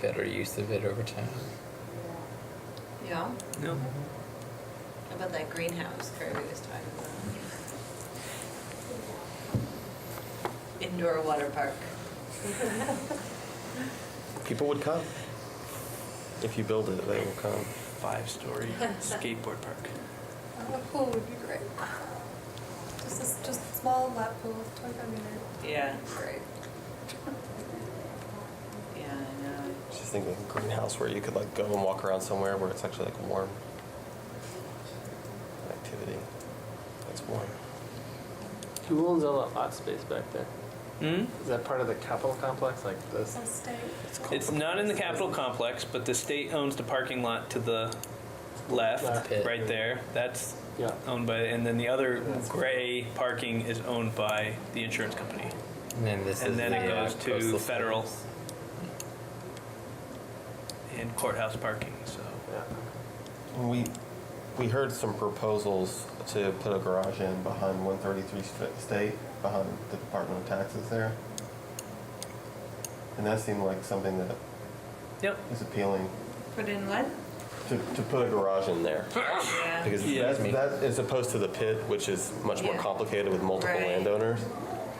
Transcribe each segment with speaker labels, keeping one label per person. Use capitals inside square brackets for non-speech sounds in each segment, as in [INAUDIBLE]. Speaker 1: better use of it over time.
Speaker 2: Yeah,
Speaker 3: No.
Speaker 2: How about that greenhouse Kirby was talking about. Indoor water park.
Speaker 4: People would come. If you build it, they will come.
Speaker 3: Five-story skateboard park.
Speaker 5: A pool would be great. Just a, s- just a small lap pool, 25 meter.
Speaker 2: Yeah,
Speaker 5: Great.
Speaker 2: yeah, I know.
Speaker 4: Just think like a greenhouse where you could like go and walk around somewhere where it's actually like warm. An Activity. That's warm.
Speaker 6: Who owns all that lot space back there?
Speaker 3: Hmm?
Speaker 6: Is that part of the capital complex, like this?
Speaker 5: So stay.
Speaker 3: It's not in the Capitol complex, but the state owns the parking lot to the left,
Speaker 1: Pit.
Speaker 3: right there. That's
Speaker 6: Yeah.
Speaker 3: owned by, and then the other gray parking is owned by the insurance company.
Speaker 1: And then this
Speaker 3: And
Speaker 1: is
Speaker 3: then
Speaker 1: the,
Speaker 3: it
Speaker 1: uh,
Speaker 3: goes to
Speaker 1: coastal
Speaker 3: federal.
Speaker 1: service.
Speaker 3: And courthouse parking, so.
Speaker 6: Yeah.
Speaker 4: And we we heard some proposals to put a garage in behind 133 St- State, behind the Department of Taxes there. And that seemed like something that
Speaker 3: Yep.
Speaker 4: is appealing
Speaker 2: Put in what?
Speaker 4: to, to put a garage in there.
Speaker 2: Yeah,
Speaker 4: Because
Speaker 3: Yeah.
Speaker 4: that, that is opposed to the pit, which is much more
Speaker 2: Yeah.
Speaker 4: complicated with multiple
Speaker 2: Right.
Speaker 4: landowners.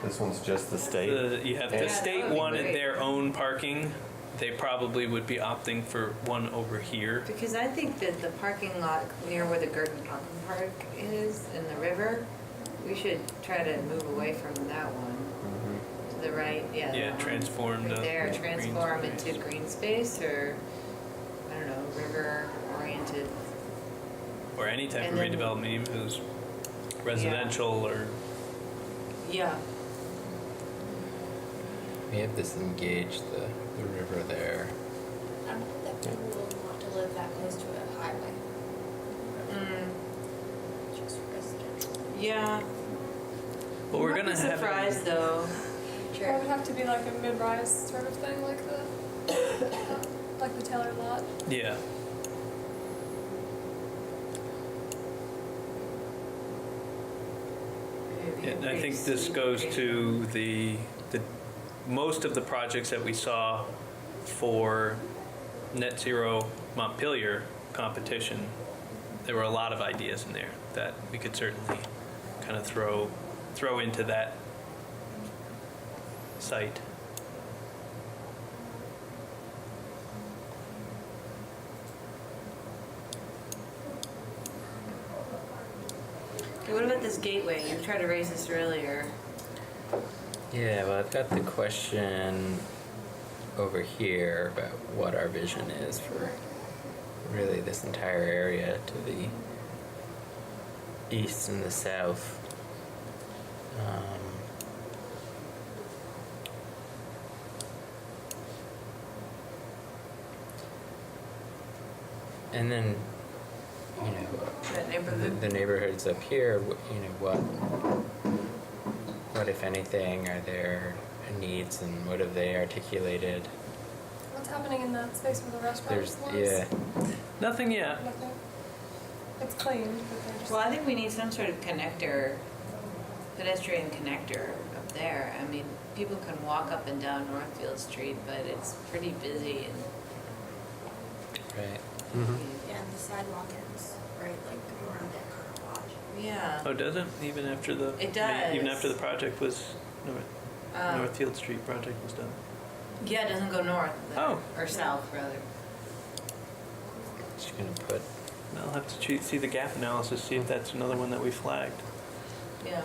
Speaker 4: This one's just the state.
Speaker 3: The, you have,
Speaker 4: Yeah,
Speaker 3: the
Speaker 4: that
Speaker 3: state
Speaker 2: would be
Speaker 3: wanted
Speaker 2: great.
Speaker 3: their own parking. They probably would be opting for one over here.
Speaker 2: because I think that the parking lot near where the Gurdon Mountain Park is in the river, we should try to move away from that one.
Speaker 4: Mhm.
Speaker 2: To the right, yeah. that
Speaker 3: Yeah,
Speaker 2: one.
Speaker 3: transform
Speaker 2: Right
Speaker 3: the
Speaker 2: There,
Speaker 3: green
Speaker 2: transform
Speaker 3: space.
Speaker 2: into green space or, I don't know, river-oriented
Speaker 3: Or any type of
Speaker 2: And then-
Speaker 3: redevelopment, even if it was residential or
Speaker 2: Yeah,
Speaker 1: We have disengaged the, the river there.
Speaker 7: I don't think that people will want to live that close to a highway,
Speaker 2: mm,
Speaker 7: just residential.
Speaker 2: yeah.
Speaker 3: Well, we're
Speaker 2: Might be
Speaker 3: gonna have.
Speaker 2: surprised though.
Speaker 5: Or it would have to be like a mid-rise sort of thing, like the, like the [COUGHS] Taylor lot.
Speaker 3: Yeah. And I think this goes to the, the, most of the projects that we saw for net zero Montpelier competition, there were a lot of ideas in there that we could certainly kind of throw, throw into that site.
Speaker 2: Okay, What about this gateway? You tried to raise this earlier.
Speaker 1: Yeah, well, I've got the question over here about what our vision is for really this entire area to the east and the south. Um, and then, you know,
Speaker 2: That
Speaker 1: the,
Speaker 2: neighborhood.
Speaker 1: the neighborhoods up here, wh- you know, what, what if anything are their needs and what have they articulated?
Speaker 5: What's happening in that space where the restaurant
Speaker 1: There's,
Speaker 5: was?
Speaker 1: yeah,
Speaker 3: Nothing yet.
Speaker 5: Nothing. It's clean, but they're just.
Speaker 2: Well, I think we need some sort of connector, pedestrian connector up there. I mean, people can walk up and down Northfield Street, but it's pretty busy and
Speaker 1: right.
Speaker 2: Mm-hmm.
Speaker 7: Yeah, and the sidewalk ends, right, like around that garage.
Speaker 2: yeah.
Speaker 3: Oh, does it? Even after the.
Speaker 2: It
Speaker 3: Even
Speaker 2: does.
Speaker 3: after the project was,
Speaker 2: Um,
Speaker 3: Northfield Street project was done.
Speaker 2: Yeah, it doesn't go north. there,
Speaker 3: Oh.
Speaker 2: Or south rather.
Speaker 1: Just gonna put,
Speaker 3: I'll have to che- see the gap analysis, see if that's another one that we flagged.
Speaker 2: Yeah.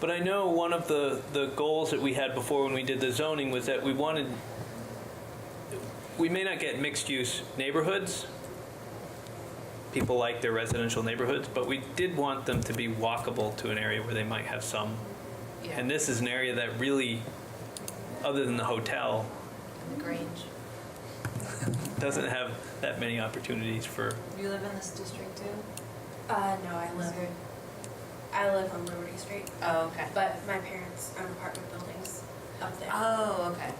Speaker 3: But I know one of the, the goals that we had before when we did the zoning was that we wanted, we may not get mixed use neighborhoods. People like their residential neighborhoods, but we did want them to be walkable to an area where they might have some.
Speaker 2: Yeah.
Speaker 3: And this is an area that really, other than the hotel,
Speaker 2: The Grange.
Speaker 3: doesn't have that many opportunities for,
Speaker 2: You live in this district too?
Speaker 7: Uh, no, I live, I live on Liberty Street,
Speaker 2: Oh, okay.
Speaker 7: but my parents own apartment buildings up there,
Speaker 2: Oh, okay.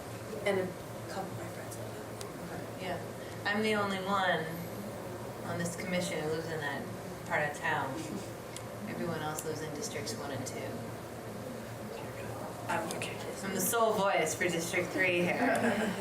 Speaker 7: and a couple of my friends live up there.
Speaker 2: Yeah, I'm the only one on this commission who lives in that part of town. Everyone else lives in districts one and two. I'm- I'm the sole voice for District Three here.